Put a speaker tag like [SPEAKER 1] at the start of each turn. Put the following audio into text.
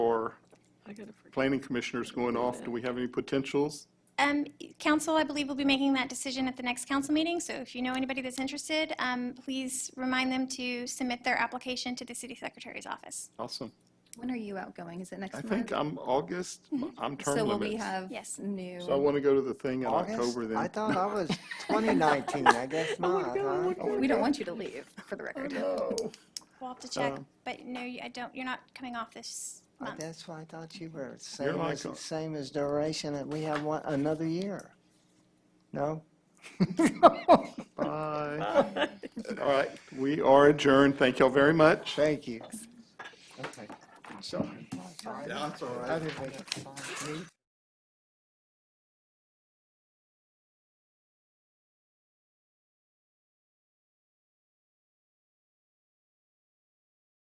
[SPEAKER 1] our planning commissioners going off? Do we have any potentials?
[SPEAKER 2] Um, Council, I believe, will be making that decision at the next council meeting, so if you know anybody that's interested, um, please remind them to submit their application to the city secretary's office.
[SPEAKER 1] Awesome.
[SPEAKER 3] When are you outgoing? Is it next
[SPEAKER 1] I
[SPEAKER 3] month?
[SPEAKER 1] think I'm August, I'm term
[SPEAKER 3] So will we
[SPEAKER 1] limits.
[SPEAKER 3] have
[SPEAKER 2] Yes.
[SPEAKER 3] new?
[SPEAKER 1] So I want to go to the thing in
[SPEAKER 4] August?
[SPEAKER 1] October
[SPEAKER 4] I
[SPEAKER 1] then.
[SPEAKER 4] thought I was 2019, I guess not, huh?
[SPEAKER 3] We don't want you to leave, for the
[SPEAKER 1] Oh,
[SPEAKER 3] record.
[SPEAKER 2] We'll have to check,
[SPEAKER 1] Um,
[SPEAKER 2] but no, you- I don't, you're not coming off this
[SPEAKER 4] Uh,
[SPEAKER 2] month.
[SPEAKER 4] That's why I thought you were, same
[SPEAKER 1] like
[SPEAKER 4] as,
[SPEAKER 1] a-
[SPEAKER 4] same as duration, that we have one, another year. No?
[SPEAKER 1] Bye. All right, we are adjourned. Thank y'all very much.
[SPEAKER 4] Thank you. Okay. So. That's all right.